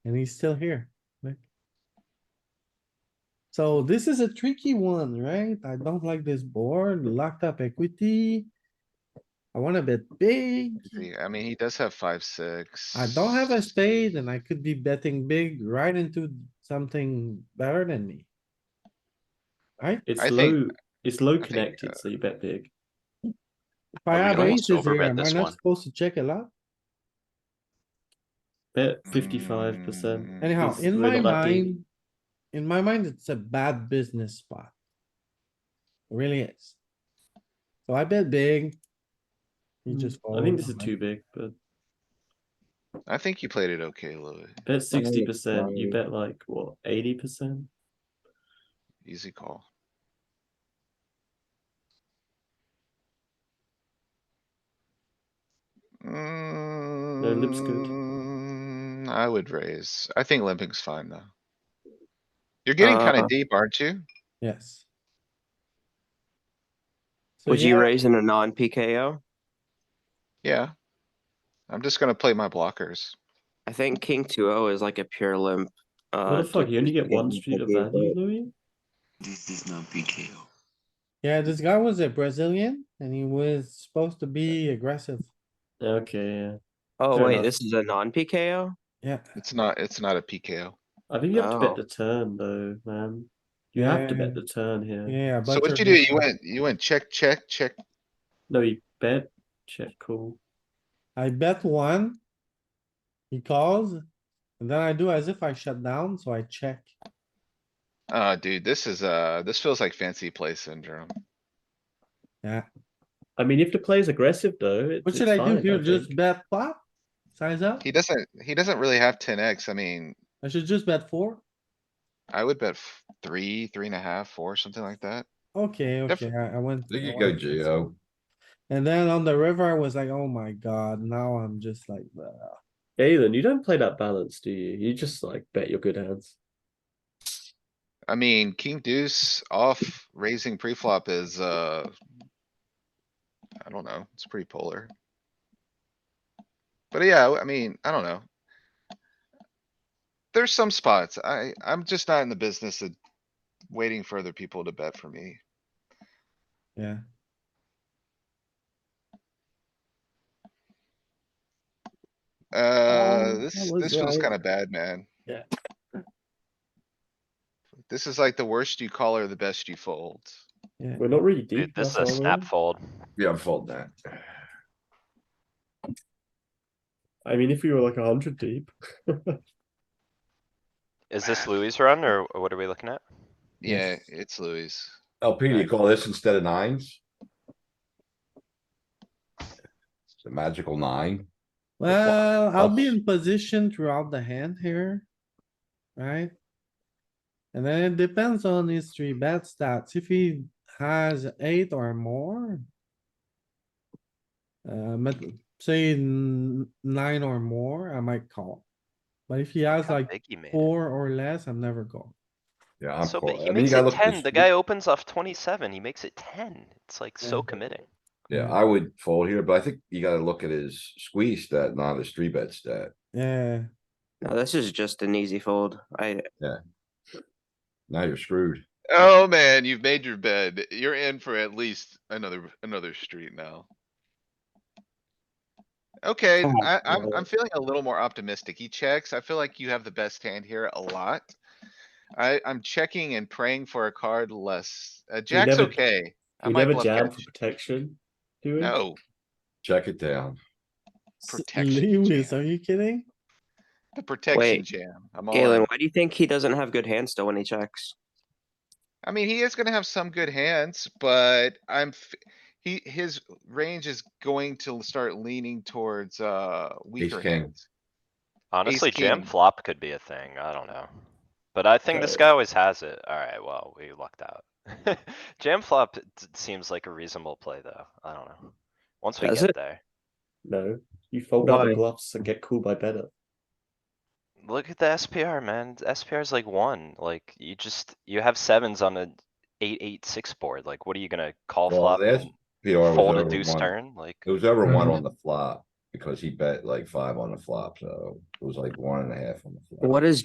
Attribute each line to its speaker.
Speaker 1: And he's still here. Look. So this is a tricky one, right? I don't like this board, locked up equity. I wanna bet big.
Speaker 2: See, I mean, he does have five, six.
Speaker 1: Hmm. I don't have a spade and I could be betting big right into something better than me. Right?
Speaker 3: It's
Speaker 2: I
Speaker 3: low.
Speaker 2: think-
Speaker 3: it's low
Speaker 2: think,
Speaker 3: connected, so you bet big.
Speaker 1: If I
Speaker 4: Well, we
Speaker 1: have
Speaker 4: could almost
Speaker 1: aces here,
Speaker 4: overbet
Speaker 1: am I
Speaker 4: this
Speaker 1: not
Speaker 4: one.
Speaker 1: supposed to check a lot?
Speaker 3: Bet fifty-five percent.
Speaker 2: Mm,
Speaker 1: Anyhow,
Speaker 3: It's
Speaker 1: in my
Speaker 3: really lucky.
Speaker 1: mind, in my mind, it's a bad business spot. It Really is. So I bet big. You just.
Speaker 3: Hmm. I
Speaker 1: fold,
Speaker 3: think this is
Speaker 1: right?
Speaker 3: too big, but
Speaker 2: I think you played it okay, Louis.
Speaker 3: bet sixty percent. You bet like what eighty percent?
Speaker 2: Easy call.
Speaker 3: limp's good.
Speaker 2: Mm, I would raise. I think limping's fine though. You're getting kinda
Speaker 5: Uh,
Speaker 2: deep, aren't you?
Speaker 1: Yes. So
Speaker 5: Would you
Speaker 1: yeah,
Speaker 5: raise in a non PKO?
Speaker 2: Yeah. I'm just gonna play my blockers.
Speaker 5: I think King 2-0 is like a pure limp.
Speaker 3: What
Speaker 5: Uh,
Speaker 3: the fuck? You only get one
Speaker 5: yeah,
Speaker 3: street of
Speaker 5: yeah,
Speaker 3: value,
Speaker 5: yeah.
Speaker 3: Louis.
Speaker 4: This is not PKO.
Speaker 1: Yeah, this guy was a Brazilian and he was supposed to be aggressive.
Speaker 3: Okay, yeah.
Speaker 5: oh
Speaker 3: Fair
Speaker 5: wait,
Speaker 3: enough.
Speaker 5: this is a non PKO.
Speaker 1: Yeah,
Speaker 2: It's not, it's not a PKO.
Speaker 3: I think you have to bet
Speaker 5: Oh.
Speaker 3: the turn though, man. You have to bet
Speaker 1: Yeah.
Speaker 3: the turn here.
Speaker 1: yeah.
Speaker 2: So
Speaker 1: but
Speaker 2: what'd you do? You went, you went check, check, check.
Speaker 3: No, you bet check call.
Speaker 1: I bet one. He calls. And then I do as if I shut down, so I check.
Speaker 2: Uh, dude, this is, uh, this feels like fancy play syndrome.
Speaker 3: I mean, if the play's aggressive though, it's
Speaker 1: What
Speaker 3: it's
Speaker 1: should I do
Speaker 3: fine,
Speaker 1: here? Just
Speaker 3: think.
Speaker 1: bet flop? Size up?
Speaker 2: He doesn't, he doesn't really have ten X. I mean,
Speaker 1: I should just bet four?
Speaker 2: I would bet f- three, three and a half, four, something like that.
Speaker 1: Okay,
Speaker 2: Def-
Speaker 1: okay, I I went.
Speaker 6: There
Speaker 1: I
Speaker 6: you go,
Speaker 1: went-
Speaker 6: Gio.
Speaker 1: And then on the river, I was like, oh my god, now I'm just like, uh,
Speaker 3: Galen, you don't play that balance, do you? You just like bet your good hands.
Speaker 2: I mean, king deuce off raising pre-flop is, uh. I don't know, it's pretty polar. But yeah, I mean, I don't know. There's some spots, I, I'm just not in the business of waiting for other people to bet for me.
Speaker 1: yeah.
Speaker 2: Uh,
Speaker 3: Um,
Speaker 2: Uh, this,
Speaker 3: that was
Speaker 2: this feels
Speaker 3: right.
Speaker 2: kinda bad, man.
Speaker 3: Yeah.
Speaker 2: This is like the worst you call or the best you fold.
Speaker 3: We're not really deep.
Speaker 4: Dude, this is a
Speaker 3: that's why we're-
Speaker 4: snap fold.
Speaker 6: Yeah, I'm folding that.
Speaker 3: I mean, if we were like a hundred deep.
Speaker 4: Is this Louis' run or or what are we looking at?
Speaker 2: Yeah, it's Louis.
Speaker 6: LP, do you call this instead of nines? It's a magical nine.
Speaker 1: Well, I'll be
Speaker 6: Us.
Speaker 1: in position throughout the hand here. Right? And then it depends on his three bet stats. If he has eight or more. Uh, but say n- nine or more, I might call. But if he has
Speaker 4: How
Speaker 1: like
Speaker 4: big he made it.
Speaker 1: four or less, I'm never going.
Speaker 6: Yeah, I'm
Speaker 4: So, but
Speaker 6: calling.
Speaker 4: he
Speaker 6: I mean, you
Speaker 4: makes
Speaker 6: gotta
Speaker 4: it
Speaker 6: look at
Speaker 4: ten, the guy opens off twenty-seven, he makes it ten, it's like so
Speaker 1: Yeah.
Speaker 4: committing.
Speaker 6: Yeah, I would fold here, but I think you gotta look at his squeeze stat, not his three bet stat.
Speaker 1: Yeah,
Speaker 5: No, this is just an easy fold. I
Speaker 6: Now you're screwed.
Speaker 2: Oh, man, you've made your bed. You're in for at least another, another street now. Okay,
Speaker 5: Oh,
Speaker 2: I, I'm,
Speaker 3: God.
Speaker 2: I'm feeling a little more optimistic. He checks. I feel like you have the best hand here a lot. I, I'm checking and praying for a card less. Uh, jack's
Speaker 3: never-
Speaker 2: okay. I
Speaker 3: We
Speaker 2: might
Speaker 3: never
Speaker 2: bluff
Speaker 3: jam for
Speaker 2: catch.
Speaker 3: protection, do we?
Speaker 2: No,
Speaker 6: Check it down.
Speaker 1: S-
Speaker 2: Protection
Speaker 1: Lewis,
Speaker 2: jam.
Speaker 1: are you kidding?
Speaker 2: the protection
Speaker 5: Wait,
Speaker 2: jam. I'm all
Speaker 5: Galen,
Speaker 2: in.
Speaker 5: why do you think he doesn't have good hands still when he checks?
Speaker 2: I mean, he is gonna have some good hands, but I'm, f- he, his range is going to start leaning towards, uh, weaker
Speaker 6: king.
Speaker 2: hands.
Speaker 4: Honestly, jam
Speaker 2: king.
Speaker 4: flop could be a thing, I don't know. But I think this
Speaker 3: Right.
Speaker 4: guy always has it. Alright, well, we lucked out. Jam flop d- seems like a reasonable play though, I don't know. Once we
Speaker 5: Does
Speaker 4: get
Speaker 5: it?
Speaker 4: there,
Speaker 3: No, you fold out the
Speaker 5: Why?
Speaker 3: bluffs and get cool by better.
Speaker 4: look at the SPR, man. The SPR is like one, like you just, you have sevens on a eight, eight, six board, like what are you gonna call
Speaker 6: Well,
Speaker 4: flop?
Speaker 6: that's
Speaker 4: and
Speaker 6: PR was
Speaker 4: Fold a
Speaker 6: over
Speaker 4: deuce
Speaker 6: one.
Speaker 4: turn, like.
Speaker 6: It was over one on the flop. because he bet like five on the flop, so it was like one and a half on the flop.
Speaker 5: What is